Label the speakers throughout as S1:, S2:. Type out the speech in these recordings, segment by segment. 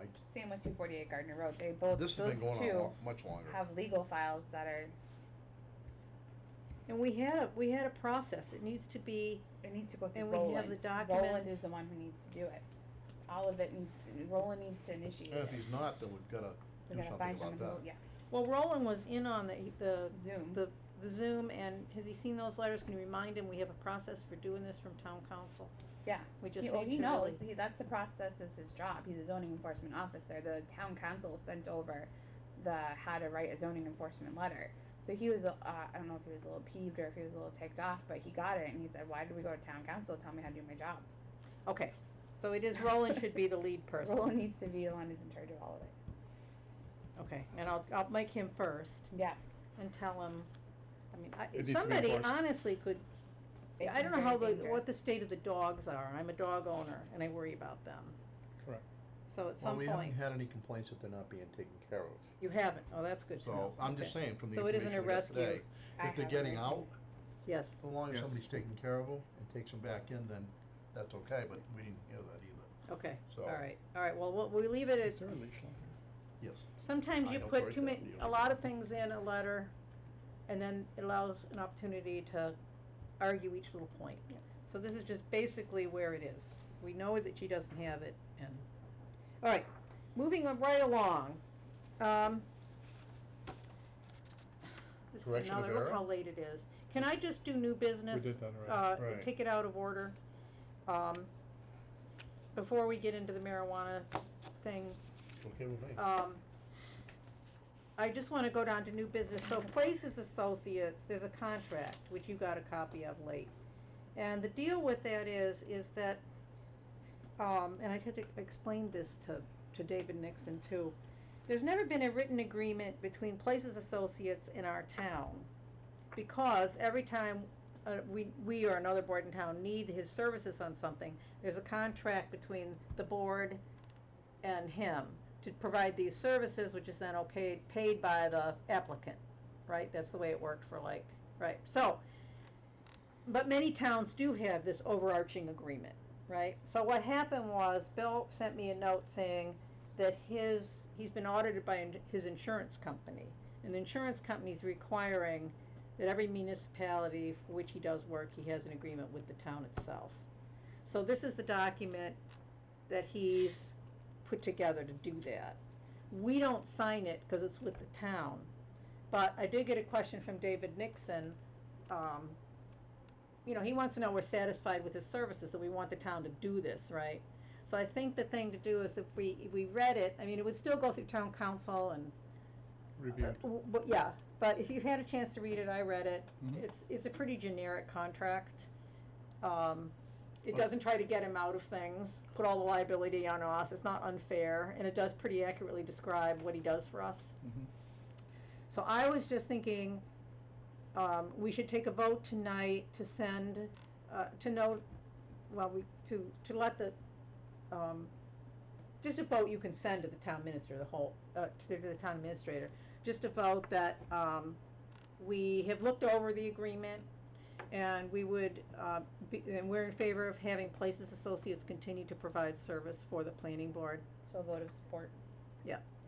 S1: and same with two forty eight Gardner Road. They both
S2: This has
S1: those
S2: been going
S1: two
S2: on lo- much longer.
S1: have legal files that are
S3: And we had a, we had a process, it needs to be,
S1: it needs to go through
S3: And we have
S1: Roland.
S3: the
S1: Roland
S3: documents.
S1: is the one who needs to do it. All of it, and and Roland needs to initiate
S2: And if
S1: it.
S2: he's not, then we've gotta
S1: We
S2: do
S1: gotta
S2: something
S1: find
S2: about
S1: someone who,
S2: that.
S1: yeah,
S3: well, Roland was in on the, the,
S1: Zoom.
S3: the, the Zoom, and has he seen those letters, can you remind him, we have a process for doing this from town council?
S1: Yeah.
S3: We just
S1: He- well,
S3: need
S1: he
S3: to
S1: knows.
S3: really-
S1: He, that's the process. Is his job. He's a zoning enforcement officer. The town council sent over the how to write a zoning enforcement letter. So he was. Uh, I don't know if he was a little peeved or if he was a little ticked off, but he got it and he said, "Why did we go to town council? Tell me how to do my job."
S3: Okay, so it is, Roland should be the lead person,
S1: Roland needs to be the one who's in charge of all of it.
S3: okay, and I'll, I'll make him first,
S1: Yeah.
S3: and tell him, I mean, I,
S4: needs to be
S3: somebody
S4: enforced.
S3: honestly could,
S1: It's
S3: I don't know how
S1: very
S3: the,
S1: dangerous.
S3: what the state of the dogs are, I'm a dog owner, and I worry about them.
S4: Correct.
S3: So at
S2: Well,
S3: some
S2: we
S3: point,
S2: haven't had any complaints that they're not being taken care of.
S3: you haven't, oh, that's good to know.
S2: So I'm just
S3: Okay.
S2: saying from the
S3: So it isn't
S2: information we
S3: a
S2: got
S3: rescue.
S2: today,
S1: I
S2: if they're
S1: have
S2: getting
S1: it.
S2: out,
S3: Yes,
S2: as long as
S4: Yes.
S2: somebody's taking care of them and takes them back in, then that's okay, but we didn't hear that either,
S3: okay,
S2: so.
S3: all right, all right, well, we'll, we leave it
S4: Is
S3: at,
S4: there a leash on here?
S2: Yes.
S3: sometimes
S2: I
S3: you
S2: know
S3: put
S2: Troy
S3: too many,
S2: doesn't use
S3: a
S2: it.
S3: lot of things in a letter, and then it allows an opportunity to argue each little point.
S1: Yep.
S3: So this is just basically where it is, we know that she doesn't have it, and, all right, moving on right along, um. This is
S2: Correction of
S3: another, look
S2: error?
S3: how late it is, can I just do new business?
S4: We did that already.
S3: uh,
S2: Right.
S3: take it out of order. Um, before we get into the marijuana thing,
S2: It's okay with me.
S3: um, I just wanna go down to new business, so Places Associates, there's a contract, which you got a copy of late. And the deal with that is, is that, um, and I had to explain this to, to David Nixon too. There's never been a written agreement between Places Associates and our town. Because every time, uh, we, we or another board in town need his services on something, there's a contract between the board and him to provide these services, which is then okay, paid by the applicant, right? That's the way it worked for like, right, so. But many towns do have this overarching agreement, right? So what happened was Bill sent me a note saying that his, he's been audited by in- his insurance company. And the insurance company's requiring that every municipality for which he does work, he has an agreement with the town itself. So this is the document that he's put together to do that. We don't sign it because it's with the town. But I did get a question from David Nixon. Um, you know, he wants to know we're satisfied with his services, that we want the town to do this, right? So I think the thing to do is if we, if we read it, I mean, it would still go through town council and
S4: Reviewed.
S3: uh, w- But, yeah, but if you've had a chance to read it, I read it,
S4: Mhm.
S3: it's, it's a pretty generic contract. Um, it
S2: But-
S3: doesn't try to get him out of things, put all the liability on us, it's not unfair, and it does pretty accurately describe what he does for us.
S4: Mhm.
S3: So I was just thinking, um, we should take a vote tonight to send, uh, to note, well, we, to, to let the, um, just a vote you can send to the town minister, the whole, uh, to to the town administrator, just a vote that, um, we have looked over the agreement and we would, uh, be, and we're in favor of having Places Associates continue to provide service for the planning board.
S1: So a vote of support.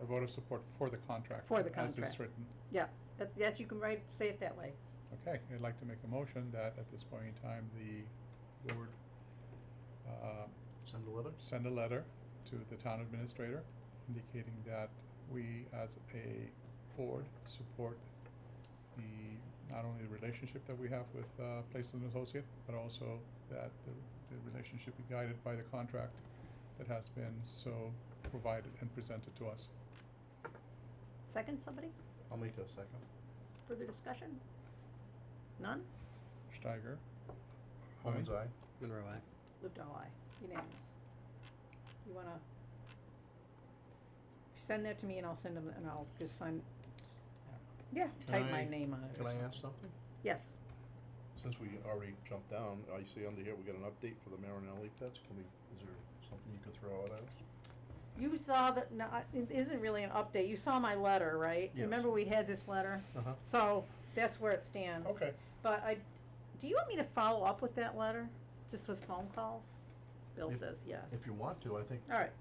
S4: A vote of support for the contract.
S3: Uh, For the
S4: As
S3: contract.
S4: it's written.
S3: That's, yes, you can write, say it that way.
S4: Okay, I'd like to make a motion that at this point in time, the board uh,
S2: Send a letter?
S4: send a letter to the town administrator indicating that we as a board support the, not only the relationship that we have with uh, Places and Associate, but also that the, the relationship be guided by the contract that has been so provided and presented to us.
S3: Second, somebody?
S2: I'll make that second.
S3: Further discussion? None?
S4: Steiger.
S2: Holman's
S4: Aye.
S2: eye.
S5: Monroe, aye.
S3: Lipton, aye. Unanimous. You wanna? If you send that to me and I'll send them, and I'll just sign, s-
S1: Yeah.
S2: Can
S3: type my
S2: I-
S3: name on it.
S2: Can I ask something?
S3: Yes,
S2: Since we already jumped down, I see under here, we got an update for the Marinelli pets. Can we, is there something you could throw out at us?
S3: you saw the, no, I- it isn't really an update, you saw my letter, right?
S2: Yes.
S3: Remember we had this letter?
S2: Uh-huh.
S3: So, that's where it stands.
S2: Okay.
S3: But I, do you want me to follow up with that letter, just with phone calls? Bill
S2: If-
S3: says yes.
S2: If you want to, I think
S3: All right,